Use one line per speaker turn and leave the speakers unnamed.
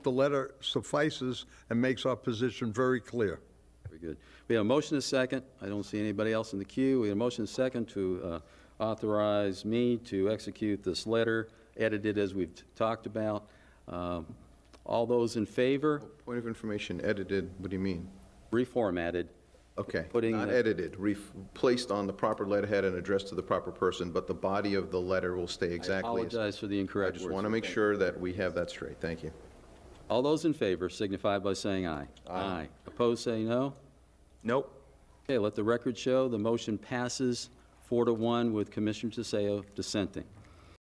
the letter suffices and makes our position very clear.
Very good. We have a motion and a second. I don't see anybody else in the queue. We have a motion and a second to uh, authorize me to execute this letter, edited as we've talked about. Um, All those in favor,
Point of information, edited, what do you mean?
reformatted.
Okay.
Putting
Not
the-
edited, ref- placed on the proper letterhead and addressed to the proper person, but the body of the letter will stay
I
exactly as...
apologize for the
I
incorrect
just
words.
want to make sure that we have that straight, thank you.
All those in favor signify by saying aye. Aye. Opposed, say no.
Nope.
Okay, let the record show, the motion passes four to one with Commissioner DeSayo dissenting.